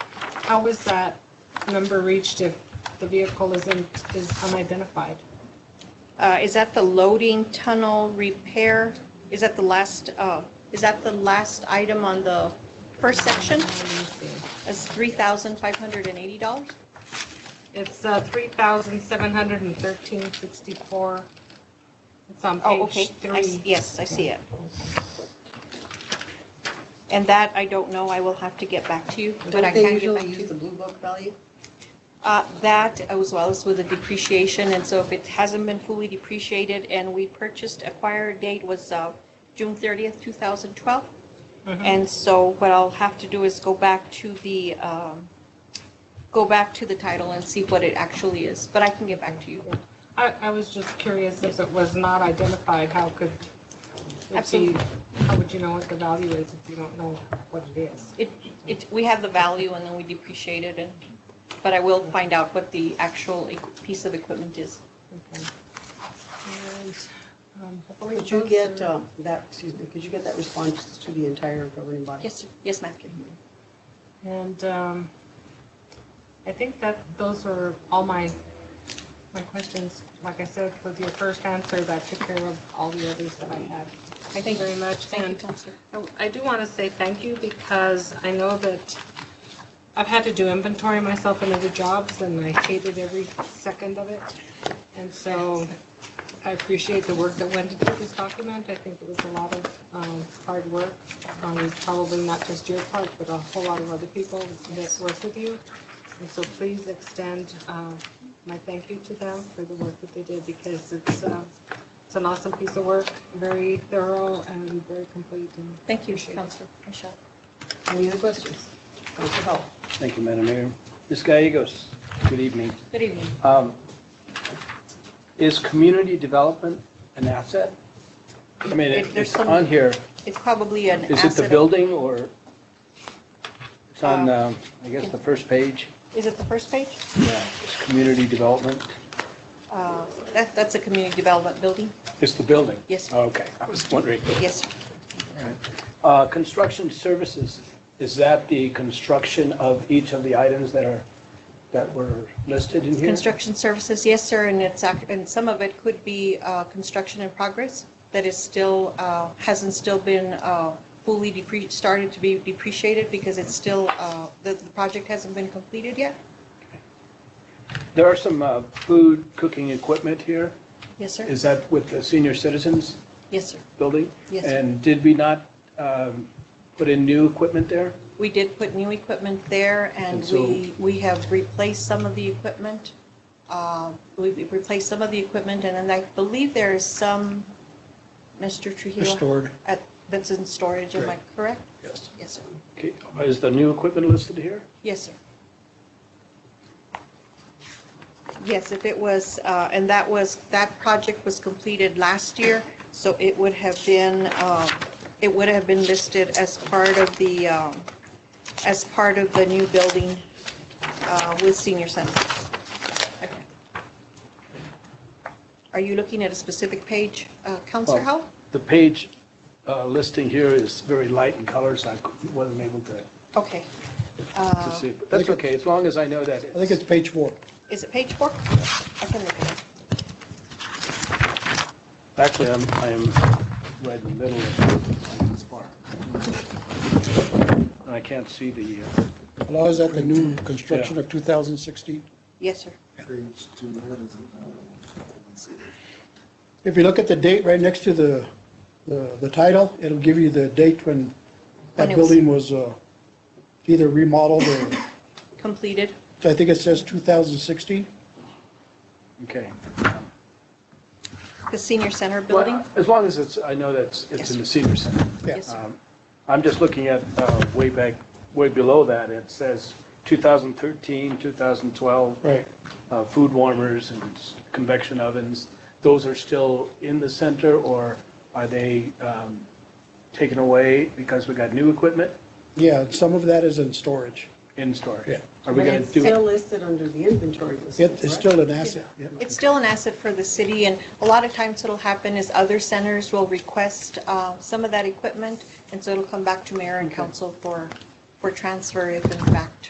How is that number reached if the vehicle isn't, is unidentified? Uh, Is that the loading tunnel repair? Is that the last, uh, is that the last item on the first section? Let me see. That's $3,580? It's uh, 3,713.64. It's on Oh, okay. page I s- three. Yes, I see it. And that, I don't know, I will have to get back to you, but I Don't they can get back usually to use the you. Blue Book value? Uh, That, as well as with the depreciation, and so if it hasn't been fully depreciated and we purchased, acquired date was uh, June 30th, 2012, And so what I'll have to do is go back to the, um, go back to the title and see what it actually is, but I can get back to you. I, I was just curious if it was not identified, how could it be, Absolutely. how would you know what the value is if you don't know what it is? It, it, we have the value and then we depreciate it and, but I will find out what the actual e- piece of equipment is. Okay. And, um, hopefully Could you those get are- um, that, excuse me, could you get that response to the entire governing body? Yes, sir. yes, ma'am. And um, I think that those were all my, my questions. Like I said, with your first answer, that took care of all the others that I had. Thank you very much. Thank you, And Counselor. Oh, I- I do want to say thank you because I know that I've had to do inventory myself in other jobs and I hated every second of it. And so I appreciate the work that went into this document. I think it was a lot of um, hard work on probably not just your part, but a whole lot of other people that work with you. And so please extend uh, my thank you to them for the work that they did because it's, uh, it's an awesome piece of work, very thorough and very complete. And Thank you, Counselor Michelle. Any other questions? Council Hall? Thank you, Madam Mayor. Ms. Gallegos, good evening. Good evening. Um, Is community development an asset? I mean, If there's it's some- on here. It's probably an Is it the asset. building or? It's on, Um, um, I guess, the first page. Is it the first page? Yeah. It's community development. Uh, That, that's a community development building? It's the building? Oh, Yes. Okay, I was wondering. Yes, sir. Uh, Construction services, is that the construction of each of the items that are, that were listed in here? Construction services, yes, sir, and it's, ac- and some of it could be uh, construction in progress that is still, uh, hasn't still been uh, fully depre, started to be depreciated because it's still, uh, the the project hasn't been completed yet. There are some uh, food cooking equipment here. Yes, sir. Is that with the senior citizens Yes, sir. building? Yes, sir. And did we not um, put in new equipment there? We did put new equipment there and And so- we, we have replaced some of the equipment. Uh, We've replaced some of the equipment and then I believe there is some, Mr. Trujillo? Restored. at- That's in storage, am I correct? Yes. Yes, sir. Okay, is the new equipment listed here? Yes, sir. Yes, if it was, uh, and that was, that project was completed last year, so it would have been, um, it would have been listed as part of the, um, as part of the new building uh, with senior center. Okay. Are you looking at a specific page, uh, Counselor Well, Howell? The page uh, listing here is very light in colors, I wasn't able to Okay. to Uh, see. But That's think it's- okay, as long as I know that. I think it's page four. Is it page four? I can look at it. Actually, I'm, I'm right in the middle of this bar. And I can't see the, uh, Well, is that the new construction of 2016? Yes, sir. Page two, what is it? Let's see. If you look at the date right next to the, the the title, it'll give you the date when When that it was- building was uh, either remodeled or, Completed. so I think it says 2016. okay. The senior center building? Well, As long as it's, I know that's, it's in the senior center. Yeah. Yes, sir. Um, I'm just looking at uh, way back, way below that, it says 2013, 2012. Right. uh, Food warmers and s- convection ovens, those are still in the center, or are they um, taken away because we got new equipment Yeah, and some of that is in storage. in storage? Yeah. Are we But going it's to do? still listed under the inventory list. It is still an asset. yeah. It's still an asset for the city, and a lot of times what'll happen is other centers will request uh, some of that equipment, and so it'll come back to mayor and council for, for for transfer if in fact